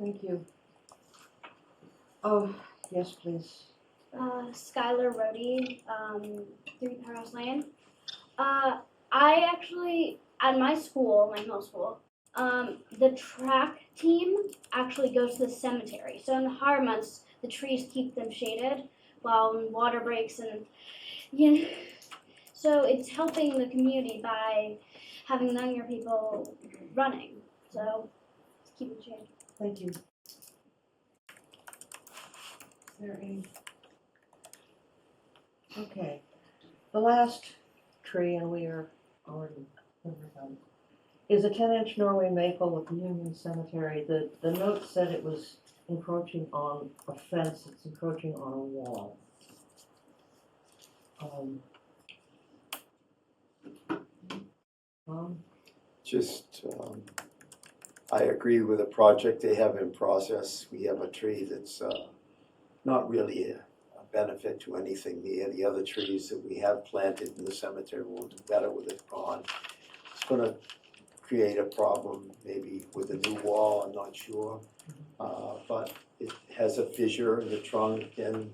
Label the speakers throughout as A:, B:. A: Thank you. Oh, yes, please.
B: uh, Skylar Rohde, um, Three Powerhouse Lane. Uh, I actually, at my school, my middle school, um, the track team actually goes to the cemetery. So in the hotter months, the trees keep them shaded while when water breaks and, you know, so it's helping the community by having younger people running. So keep it shaded.
A: Thank you. Is there any? Okay, the last tree, and we are already over them, is a ten inch Norway maple of Union Cemetery. The, the note said it was encroaching on a fence, it's encroaching on a wall. Um. Um,
C: Just, um, I agree with the project they have in process. We have a tree that's, uh, not really a a benefit to anything. The, the other trees that we have planted in the cemetery will do better with it gone. It's gonna create a problem maybe with a new wall, I'm not sure. Uh, but it has a fissure in the trunk and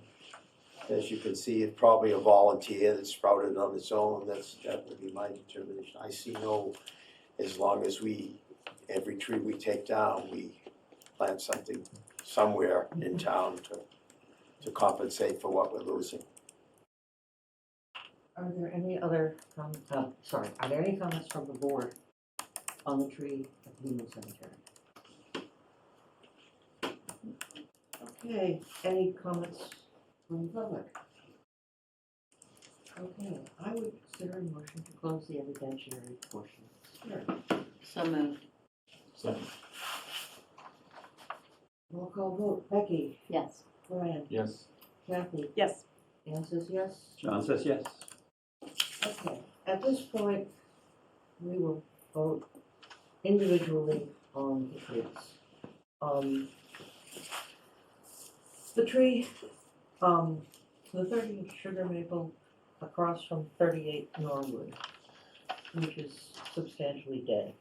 C: as you can see, it's probably a volunteer that sprouted on its own. That's, that would be my determination. I see no as long as we, every tree we take down, we plant something somewhere in town to, to compensate for what we're losing.
A: Are there any other, com- uh, sorry, are there any comments from the board on the tree at the Union Cemetery? Okay, any comments from the public? Okay, I would consider a motion to close the evidentiary portion. Sure.
D: So moved.
A: Roll call vote, Becky,
D: Yes.
A: Brian,
E: Yes.
A: Kathy,
F: Yes.
A: Anne says yes.
E: John says yes.
A: Okay, at this point, we will vote individually on the trees. Um, the tree, um, the thirty sugar maple across from thirty-eight Norwood, which is substantially dead.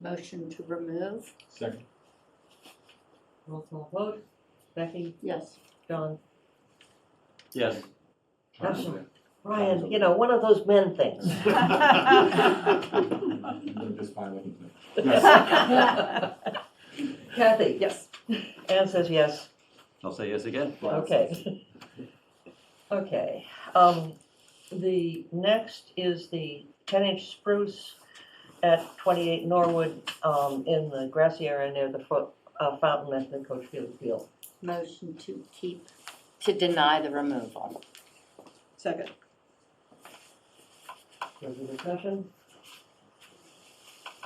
D: Motion to remove?
E: Second.
A: Roll call vote, Becky,
D: Yes.
A: John,
E: Yes.
A: I'm sorry, Brian, you know, one of those men things.
E: Just fine
A: Kathy,
F: Yes.
A: Anne says yes.
E: I'll say yes again.
A: Okay. Okay, um, the next is the ten inch spruce at twenty-eight Norwood, um, in the grassy area near the fo- uh, fountain at the Coach Field Field.
D: Motion to keep, to deny the removal?
F: Second.
A: Further discussion?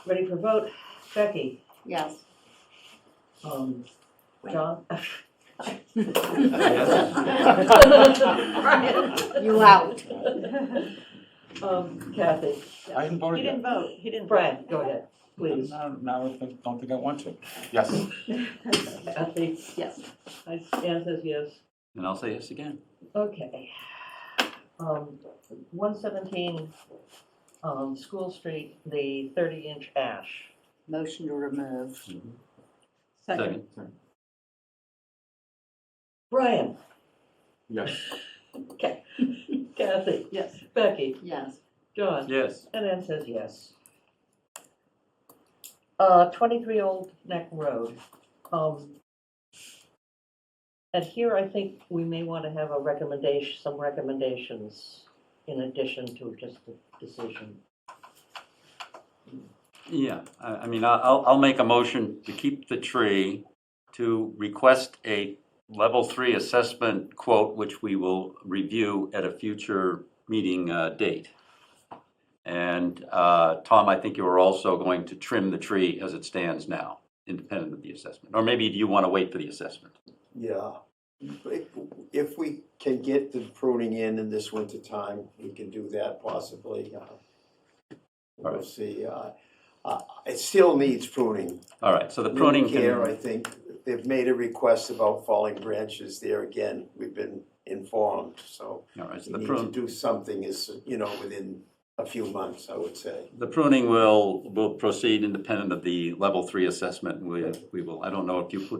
A: Ready for vote? Becky?
D: Yes.
A: Um, John? Brian?
D: You out.
A: Um, Kathy?
G: I haven't
F: He
G: voted
F: didn't
G: yet.
F: vote, he didn't. vote.
A: Brian, go ahead, please.
G: Now, now I think- don't think I want to. Yes.
A: Kathy?
D: Yes.
A: I, Anne says yes.
E: And I'll say yes again.
A: Okay. Um, one seventeen, um, School Street, the thirty inch ash.
D: Motion to remove?
F: Second.
A: Brian,
E: Yes.
A: Kathy,
F: Yes.
A: Becky,
D: Yes.
A: John,
E: Yes.
A: and Ann says yes. Uh, twenty-three Old Neck Road, um. And here I think we may want to have a recommendation, some recommendations in addition to just the decision.
E: Yeah, I, I mean, I- I'll, I'll make a motion to keep the tree, to request a level three assessment quote, which we will review at a future meeting uh, date. And uh, Tom, I think you are also going to trim the tree as it stands now, independent of the assessment. Or maybe do you want to wait for the assessment?
C: Yeah. If, if we can get the pruning in in this winter time, we can do that possibly. uh, We'll
E: Alright.
C: see. uh, uh, It still needs pruning.
E: All right, so the pruning
C: Care, I
E: can,
C: think, they've made a request about falling branches there again. We've been informed, so
E: all right, so
C: we
E: the
C: need to
E: prune,
C: do something is, you know, within a few months, I would say.
E: the pruning will, will proceed independent of the level three assessment. We, we will, I don't know if you put